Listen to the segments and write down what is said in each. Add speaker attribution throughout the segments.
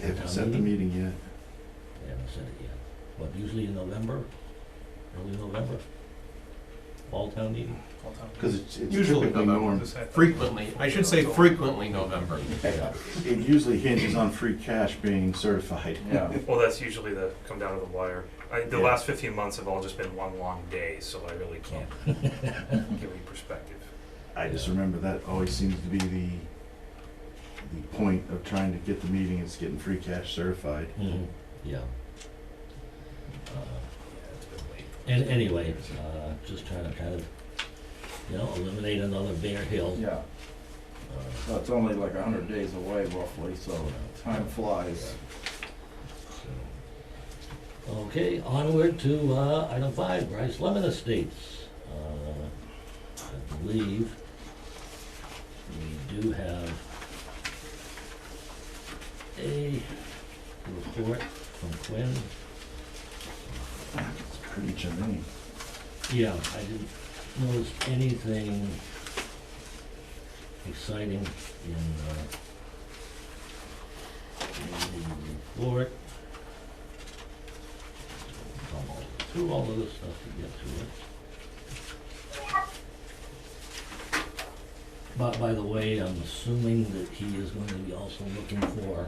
Speaker 1: haven't
Speaker 2: town
Speaker 1: set the meeting yet.
Speaker 2: They haven't said it yet, but usually in November, early November, fall town meeting.
Speaker 1: Because it's it's
Speaker 3: Usually
Speaker 1: typically norm.
Speaker 3: Frequently, I should say frequently November.
Speaker 2: Yeah.
Speaker 1: It usually hinges on free cash being certified.
Speaker 4: Yeah.
Speaker 5: Well, that's usually the come down to the wire. I, the
Speaker 1: Yeah.
Speaker 5: last 15 months have all just been one long day, so I really can't give you perspective.
Speaker 1: I just remember that always seems to be the, the point of trying to get the meeting is getting free cash certified.
Speaker 2: Mhm, Yeah. Uh,
Speaker 5: Yeah, it's been late.
Speaker 2: And anyway, uh, just trying to kind of, you know, eliminate another Bear Hill.
Speaker 4: Yeah,
Speaker 2: uh,
Speaker 4: so it's only like a hundred days away roughly, so
Speaker 2: uh,
Speaker 4: time flies.
Speaker 2: so. Okay, onward to, uh, item five, Bryce Lemon Estates. Uh, I believe we do have a report from Quinn.
Speaker 1: It's pretty germane.
Speaker 2: Yeah, I didn't notice anything exciting in, uh, in the report. Come all- Through all of this stuff to get to it. But by the way, I'm assuming that he is going to be also looking for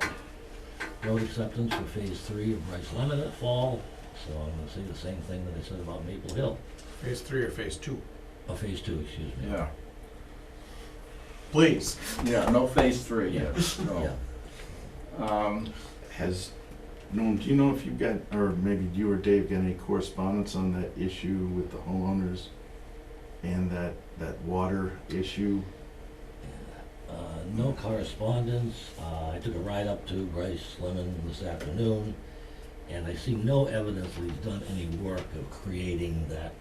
Speaker 2: road acceptance for phase three of Bryce Lemon at fall. So I'm gonna say the same thing that I said about Maple Hill.
Speaker 3: Phase three or phase two?
Speaker 2: Oh, phase two, excuse me.
Speaker 4: Yeah,
Speaker 3: Please.
Speaker 4: yeah, no phase three yet, no. Um,
Speaker 1: Has, Norm, do you know if you got, or maybe you or Dave got any correspondence on that issue with the homeowners and that, that water issue?
Speaker 2: Uh, no correspondence. Uh, I took a ride up to Bryce Lemon this afternoon, and I see no evidence that he's done any work of creating that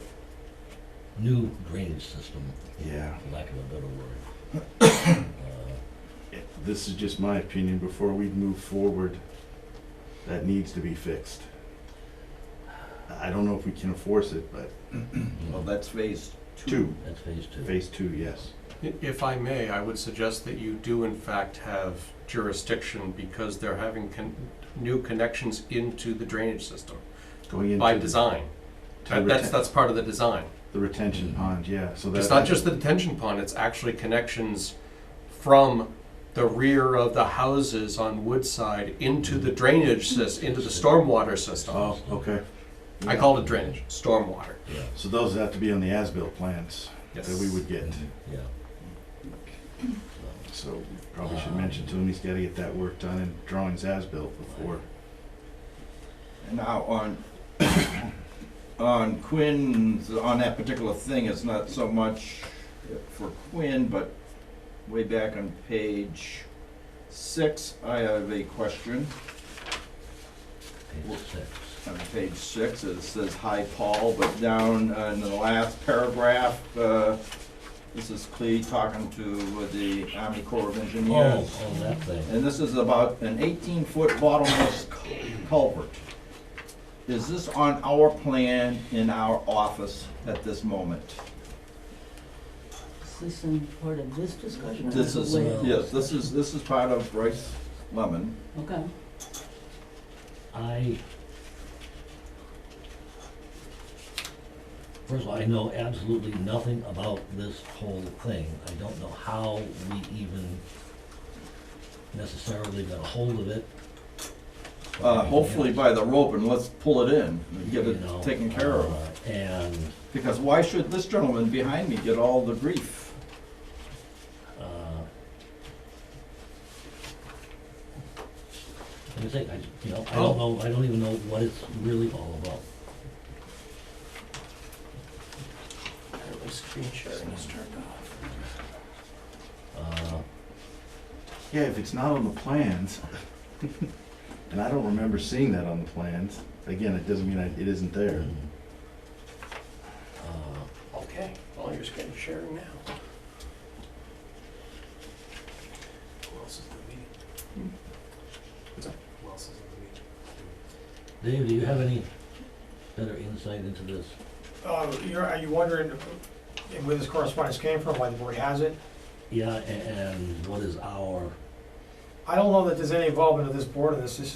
Speaker 2: new drainage system,
Speaker 1: Yeah.
Speaker 2: for lack of a better word. Uh,
Speaker 1: This is just my opinion, before we move forward, that needs to be fixed. I don't know if we can enforce it, but
Speaker 4: well, that's phase two.
Speaker 1: two,
Speaker 2: Uh, That's phase two.
Speaker 1: phase two, yes.
Speaker 3: If I may, I would suggest that you do in fact have jurisdiction because they're having con- new connections into the drainage system
Speaker 1: Going into.
Speaker 3: by
Speaker 1: the-
Speaker 3: design.
Speaker 1: to
Speaker 3: That- That's,
Speaker 1: reten-
Speaker 3: that's part of the design.
Speaker 1: The retention pond, yeah, so that.
Speaker 3: It's not just the detention pond, it's actually connections from the rear of the houses on Woodside into the drainage sys, into the stormwater system.
Speaker 1: Oh, okay.
Speaker 3: I call it drainage, stormwater.
Speaker 2: Yeah.
Speaker 1: So those have to be on the as-built plans that we would get.
Speaker 2: Yeah.
Speaker 1: So probably
Speaker 3: Uh-huh.
Speaker 1: should mention to him, he's gotta get that work done and drawings as-built before.
Speaker 4: Now, on, on Quinn's, on that particular thing, it's not so much for Quinn, but way back on page six, I have a question.
Speaker 2: Phase six.
Speaker 4: on page six, it says hi Paul, but down uh, in the last paragraph, uh, this is Clee talking to uh, the Army Corps of
Speaker 2: Oh,
Speaker 4: Engineers.
Speaker 2: oh, that thing.
Speaker 4: And this is about an eighteen-foot bottomless cul- culvert. Is this on our plan in our office at this moment?
Speaker 6: Is this in part of this discussion? or
Speaker 4: This is,
Speaker 6: later?
Speaker 4: yes, this is, this is part of Bryce Lemon.
Speaker 6: Okay,
Speaker 2: I. First of all, I know absolutely nothing about this whole thing. I don't know how we even necessarily got a hold of it.
Speaker 4: Uh, hopefully by the rope and let's pull it in and get it
Speaker 2: You know,
Speaker 4: taken care of.
Speaker 2: uh, And,
Speaker 4: Because why should this gentleman behind me get all the grief?
Speaker 2: uh. Like I say, I, you know, I don't
Speaker 4: Oh.
Speaker 2: know, I don't even know what it's really all about.
Speaker 3: Screen sharing is turned off.
Speaker 2: Uh,
Speaker 1: Yeah, if it's not on the plans, and I don't remember seeing that on the plans, again, it doesn't mean I- it isn't there.
Speaker 2: Uh,
Speaker 3: Okay, well, you're screen sharing now.
Speaker 5: Who else is in the meeting? Who else is in the meeting?
Speaker 2: Dave, do you have any better insight into this?
Speaker 7: Uh, you're, are you wondering where this correspondence came from, why the board has it?
Speaker 2: Yeah, a- and what is our
Speaker 1: I don't know that there's any involvement of this board in this, this is